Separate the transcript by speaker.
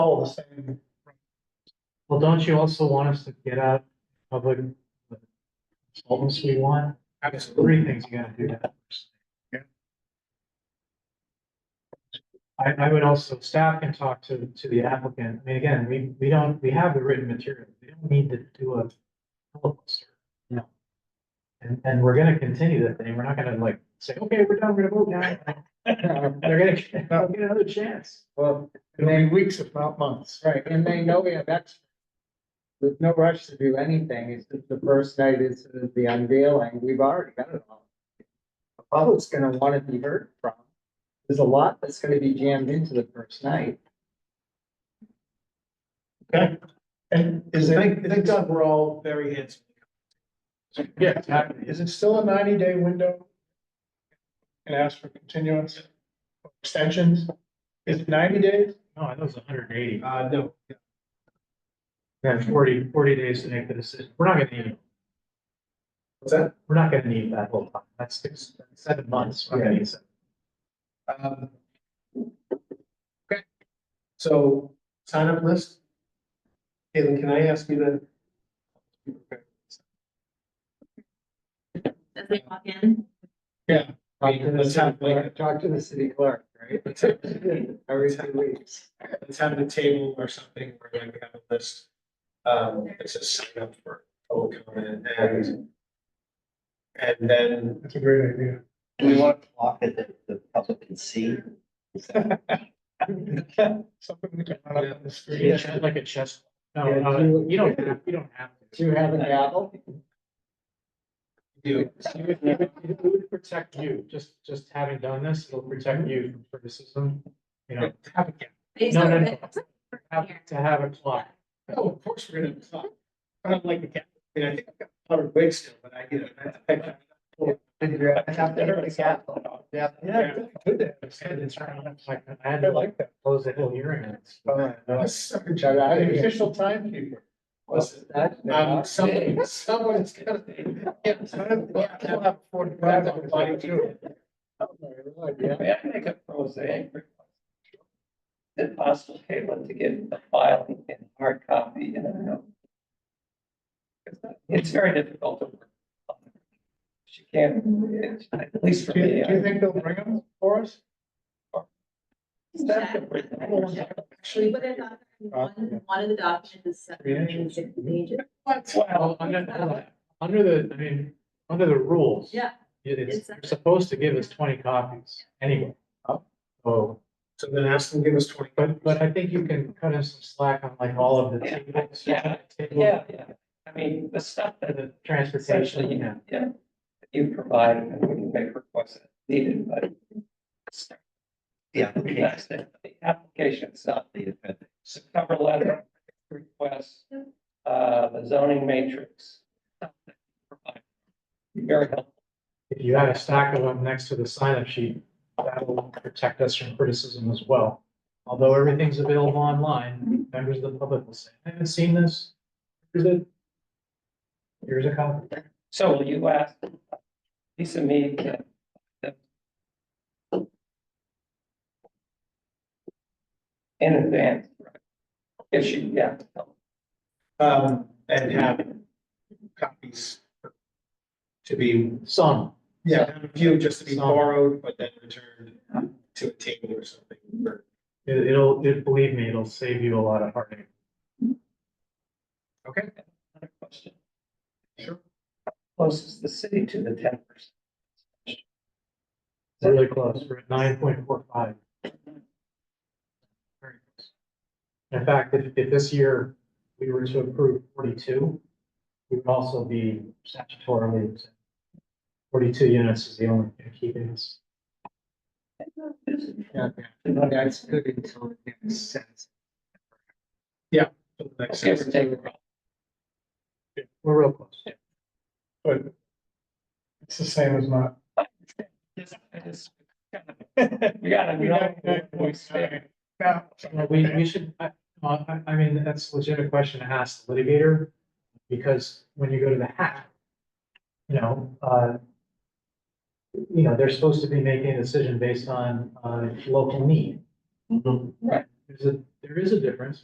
Speaker 1: all the same.
Speaker 2: Well, don't you also want us to get out public consultants we want? Three things you gotta do that. first.
Speaker 1: Yeah.
Speaker 2: I, I would also, staff can talk to, to the applicant. I mean, again, we, we don't, we have the written material. We don't need to do a filibuster. No. And, and we're gonna continue that thing. We're not gonna like say, okay, we're done, we're gonna vote now. Um, They're gonna, they'll get another chance.
Speaker 1: Well, it'll be weeks if not months.
Speaker 3: Right, and they know we have extra. There's no rush to do anything, it's just the first night is the unveiling, we've already got it all. The public's gonna wanna be heard from, there's a lot that's gonna be jammed into the first night.
Speaker 1: And is
Speaker 4: Thank,
Speaker 1: it,
Speaker 4: thank God we're all very handsome.
Speaker 1: yeah, is it still a ninety day window? And ask for continuance, extensions? Is it ninety days?
Speaker 2: No, I thought it was hundred and eighty.
Speaker 4: Uh, no,
Speaker 2: Yeah, 40 40 days to make the decision. We're not gonna need,
Speaker 4: what's that?
Speaker 2: we're not gonna need that whole time. That's six, that's seven months. We're not gonna need seven.
Speaker 4: Um, Okay, so sign up list. Caitlin, can I ask you to?
Speaker 5: as they walk in.
Speaker 3: Talk to the
Speaker 4: Let's
Speaker 3: city
Speaker 4: have,
Speaker 3: clerk,
Speaker 4: like,
Speaker 3: talk to the city clerk, right? Every two weeks.
Speaker 4: let's have a table or something where like we have a list. Um, that says sign up for public comment and. And then,
Speaker 1: That's a great idea.
Speaker 6: Do we want to block it that the public can see?
Speaker 1: Something we can run up on the
Speaker 2: Yeah,
Speaker 1: screen.
Speaker 2: it's Like a chess. No,
Speaker 3: Yeah,
Speaker 2: uh,
Speaker 3: you-
Speaker 2: you don't, have- you don't have
Speaker 3: Do
Speaker 2: to.
Speaker 3: you have a gavel?
Speaker 4: you,
Speaker 2: It would- it would- it would protect you, just, just having done this, it'll protect you from criticism, you know.
Speaker 5: They
Speaker 2: No, no,
Speaker 5: sort
Speaker 2: no.
Speaker 5: of-
Speaker 2: Have to have a clock.
Speaker 4: oh, of course, we're gonna talk. I don't like the cat, I mean, I think I've got a lot of wigs still, but I, you know, I have to pick up.
Speaker 3: I have to have a gavel. Yeah.
Speaker 4: Yeah.
Speaker 1: Good day.
Speaker 2: It's around, like, I had
Speaker 1: I
Speaker 2: to
Speaker 1: like that.
Speaker 2: close the whole hearing. It's-
Speaker 3: Shut out of
Speaker 1: The
Speaker 3: here.
Speaker 1: official timekeeper.
Speaker 4: What's Um, someone, someone's gonna. yeah, someone- yeah, we'll have
Speaker 1: Forty-five on the body too.
Speaker 3: Yeah.
Speaker 6: May I make a prosaic request? Is it possible, Caitlin, to get the file in hard copy and a note? 'Cause It's very difficult to. work on. She can't, it's- at least for
Speaker 1: Do
Speaker 6: me.
Speaker 1: you, do you
Speaker 6: I-
Speaker 1: think they'll bring them for us?
Speaker 6: Staff can bring it.
Speaker 5: Actually, what I thought, one, one of the documents is seven hundred and sixty pages.
Speaker 6: Well,
Speaker 2: Well, under, under the, I mean, under the rules.
Speaker 5: Yeah,
Speaker 2: It is,
Speaker 5: It's-
Speaker 2: you're supposed to give us twenty copies anyway. Oh. So,
Speaker 4: So then ask them, to give us twenty.
Speaker 2: but, but I think you can cut us some slack on like all of the
Speaker 6: Yeah.
Speaker 2: tables.
Speaker 6: Yeah.
Speaker 2: tables,
Speaker 6: Yeah, yeah. I mean, the stuff that
Speaker 2: The transportation,
Speaker 6: essentially,
Speaker 2: you
Speaker 6: you
Speaker 2: know.
Speaker 6: know, yeah, that you provide and we can make requests as needed, but. Yeah. The application itself, the cover letter, request, uh, the zoning matrix. stuff that you provide. Very helpful.
Speaker 2: if you had a stack of them next to the sign-up sheet, that will protect us from criticism as well. Although everything's available online, members of the public will say, I haven't seen this. Here's it. Here's a copy.
Speaker 6: So will you ask Lisa Mead to in advance? If she, yeah.
Speaker 4: Um, and have copies. To be,
Speaker 2: Some,
Speaker 4: yeah, have a few just to be
Speaker 2: Some.
Speaker 4: borrowed, but then returned to a table or something. or-
Speaker 2: it- it'll, it, believe me, it'll save you a lot of heartache.
Speaker 4: Okay,
Speaker 6: Another question.
Speaker 4: Sure.
Speaker 6: Closest the city to the ten percent.
Speaker 2: It's Really close, we're at nine point four five. Very close. In fact, if, if this year we were to approve forty-two, we would also be statutorily. exempt. Forty-two units is the only thing keeping us.
Speaker 3: Yeah, yeah. That's good until it makes sense.
Speaker 4: so the next
Speaker 6: Okay, we're
Speaker 4: session.
Speaker 6: taking.
Speaker 2: We're real close.
Speaker 1: But it's the same as not.
Speaker 6: Yes, I just- We gotta, we gotta voice there.
Speaker 1: Now,
Speaker 2: Uh, We, we should, I, well, I, I mean, that's a legitimate question to ask the litigator, because when you go to the hack, you know, uh, you know, they're supposed to be making a decision based on, uh, local need.
Speaker 6: Right.
Speaker 2: They're there's a, there is a difference